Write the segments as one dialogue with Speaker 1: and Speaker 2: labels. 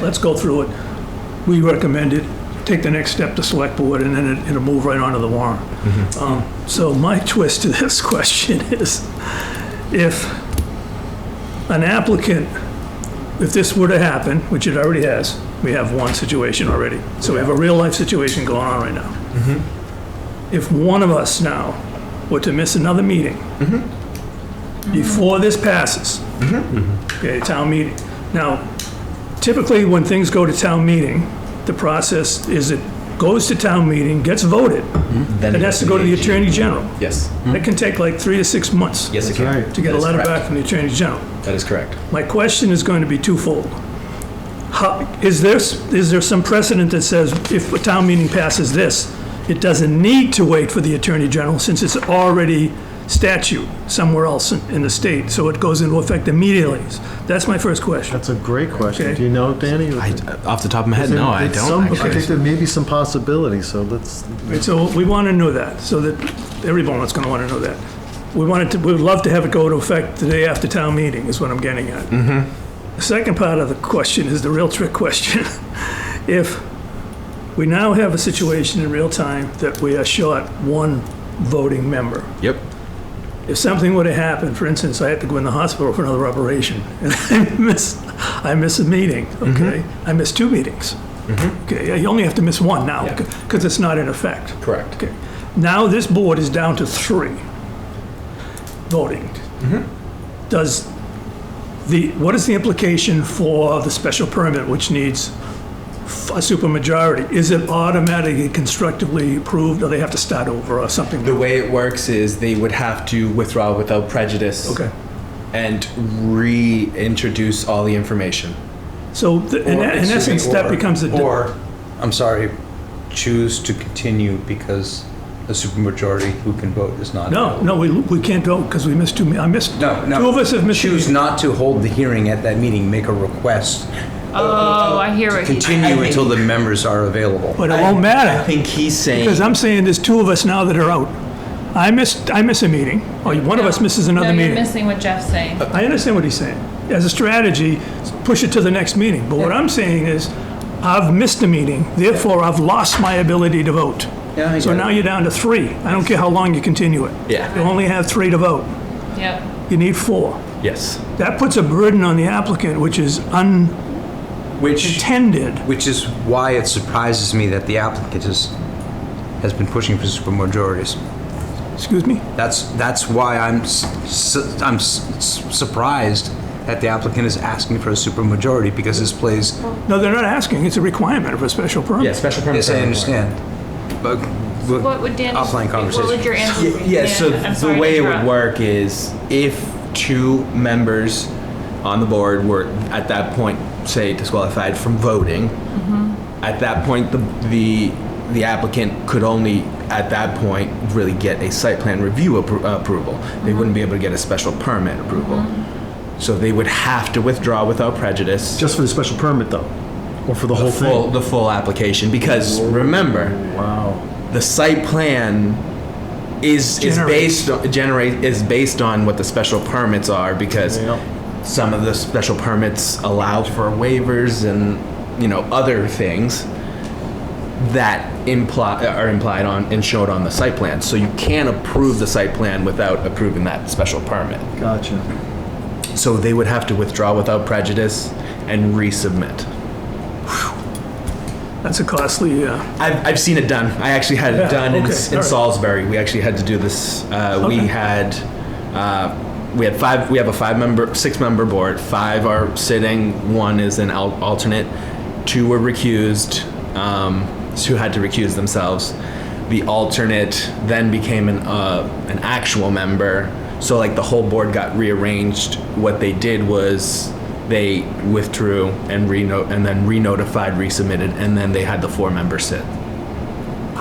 Speaker 1: Let's go through it. We recommend it, take the next step to select board, and then it- it'll move right onto the warrant. Um, So my twist to this question is, if an applicant, if this were to happen, which it already has, we have one situation already, so we have a real-life situation going on right now. If one of us now were to miss another meeting before this passes, okay, town meeting. Now, typically, when things go to town meeting, the process is it goes to town meeting, gets voted,
Speaker 2: Then
Speaker 1: it has to go to the
Speaker 2: AG.
Speaker 1: Attorney General.
Speaker 2: Yes,
Speaker 1: That can take like three to six months
Speaker 2: yes, it
Speaker 3: That's
Speaker 2: can.
Speaker 3: right.
Speaker 1: to get
Speaker 2: That
Speaker 1: a
Speaker 2: is
Speaker 1: letter
Speaker 2: correct.
Speaker 1: back from the Attorney General.
Speaker 2: That is correct.
Speaker 1: My question is going to be twofold. How, is there, s- is there some precedent that says if a town meeting passes this, it doesn't need to wait for the Attorney General since it's already statute somewhere else in in the state, so it goes into effect immediately? That's my first question.
Speaker 3: That's a great question.
Speaker 1: Okay.
Speaker 3: Do you know, Danny?
Speaker 4: I, uh, off the top of my head, no, I
Speaker 3: There's
Speaker 4: don't.
Speaker 3: some- I
Speaker 4: actually.
Speaker 3: think there may be some possibilities, so let's,
Speaker 1: Right, So we want to know that, so that everyone's going to want to know that. We wanted to, we would love to have it go to effect the day after town meeting, is what I'm getting at. The second part of the question is the real trick question. If we now have a situation in real time that we are short one voting member,
Speaker 4: Yep.
Speaker 1: if something were to happen, for instance, I had to go in the hospital for another operation, and I miss, I miss a meeting, okay? I miss two meetings. Okay, you only have to miss one now,
Speaker 2: Yeah.
Speaker 1: because it's not in effect.
Speaker 2: Correct.
Speaker 1: Okay, now this board is down to three voting.
Speaker 5: Mm-hmm.
Speaker 1: Does the, what is the implication for the special permit, which needs f- a supermajority? Is it automatically constructively approved, or they have to start over or something?
Speaker 2: The way it works is they would have to withdraw without prejudice.
Speaker 1: Okay,
Speaker 2: And reintroduce all the information.
Speaker 1: so th- in e-,
Speaker 5: Or-
Speaker 1: in
Speaker 5: excuse me,
Speaker 1: essence, that
Speaker 5: or-
Speaker 1: becomes a. di-
Speaker 5: Or, I'm sorry, choose to continue because the supermajority who can vote is not.
Speaker 1: No, no, we, we can't vote, because we missed two, me- I missed.
Speaker 5: No, no.
Speaker 1: Two of us have missed.
Speaker 5: Choose not to hold the hearing at that meeting, make a request.
Speaker 6: Oh, I hear what he-
Speaker 5: Continue until the members are available.
Speaker 1: But it won't
Speaker 2: I
Speaker 1: matter.
Speaker 2: think he's saying.
Speaker 1: Because I'm saying there's two of us now that are out. I missed, I miss a meeting, or one of us misses another
Speaker 6: No, you're
Speaker 1: meeting.
Speaker 6: missing what Jeff's saying.
Speaker 5: Uh,
Speaker 1: I understand what he's saying. As a strategy, push it to the next meeting. But what I'm saying is, I've missed a meeting, therefore I've lost my ability to vote.
Speaker 5: Yeah, I
Speaker 1: So
Speaker 5: get it.
Speaker 1: now you're down to three. I don't care how long you continue it.
Speaker 2: Yeah.
Speaker 1: You only have three to vote.
Speaker 6: Yep.
Speaker 1: You need four.
Speaker 2: Yes.
Speaker 1: That puts a burden on the applicant, which is
Speaker 5: Which,
Speaker 1: untended.
Speaker 5: which is why it surprises me that the applicant is, has been pushing for supermajorities.
Speaker 1: Excuse me?
Speaker 5: That's, that's why I'm, s- s- I'm s- s- surprised that the applicant is asking for a supermajority because this plays
Speaker 1: No, they're not asking. It's a requirement of a special permit.
Speaker 2: Yeah, special permit.
Speaker 5: Yes, I understand. But we'll-
Speaker 6: What would Dan?
Speaker 5: offline conversation.
Speaker 6: What would your answer?
Speaker 2: Y- Yeah, so
Speaker 6: Dan, I'm sorry
Speaker 2: the
Speaker 6: to
Speaker 2: way it would
Speaker 6: interrupt.
Speaker 2: work is if two members on the board were at that point, say, disqualified from voting,
Speaker 6: Mm-hmm.
Speaker 2: at that point, the, the, the applicant could only, at that point, really get a site plan review appro- approval. They wouldn't be
Speaker 6: Mm-hmm.
Speaker 2: able to get a special permit approval. So they would have to withdraw without prejudice.
Speaker 3: just for the special permit though, or for the whole
Speaker 2: full,
Speaker 3: thing?
Speaker 2: the full application because remember,
Speaker 3: Wow.
Speaker 2: the site plan is is
Speaker 1: Generates.
Speaker 2: based on, generate is based on what the special permits are because
Speaker 3: Yeah.
Speaker 2: some of the special permits allow for waivers and you know other things that imply are implied on and showed on the site plan. So you can't approve the site plan without approving that special permit.
Speaker 3: Gotcha.
Speaker 2: So they would have to withdraw without prejudice and resubmit.
Speaker 1: That's a costly, uh,
Speaker 2: I've, I've seen it done. I actually had
Speaker 1: Yeah,
Speaker 2: it done in,
Speaker 1: okay,
Speaker 2: in
Speaker 1: alright.
Speaker 2: Salisbury. We actually had to do this. Uh, We
Speaker 1: Okay.
Speaker 2: had uh, we had five. We have a five member, six member board. Five are sitting. One is an al- alternate. Two were recused. Um, two had to recuse themselves. The alternate then became an uh, an actual member. So like the whole board got rearranged. What they did was they withdrew and reno- and then re-notified, resubmitted, and then they had the four members sit.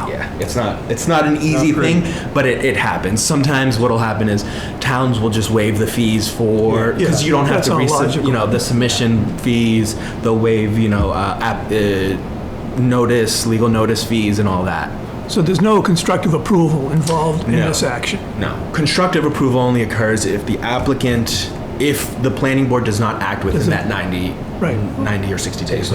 Speaker 2: Yeah, it's not it's not an easy thing, but it, it happens. Sometimes what'll happen is towns will just waive the fees for
Speaker 1: Yeah,
Speaker 2: because you don't have
Speaker 1: that's
Speaker 2: to
Speaker 1: all
Speaker 2: resub,
Speaker 1: logical.
Speaker 2: you know the submission fees. They'll waive you know uh, app, uh, notice, legal notice fees, and all that.
Speaker 1: so there's no constructive approval involved in
Speaker 2: No.
Speaker 1: this action.
Speaker 2: No, constructive approval only occurs if the applicant, if the planning board does not act within
Speaker 1: Doesn't-
Speaker 2: that 90,
Speaker 1: Right.
Speaker 2: 90 or 60 days.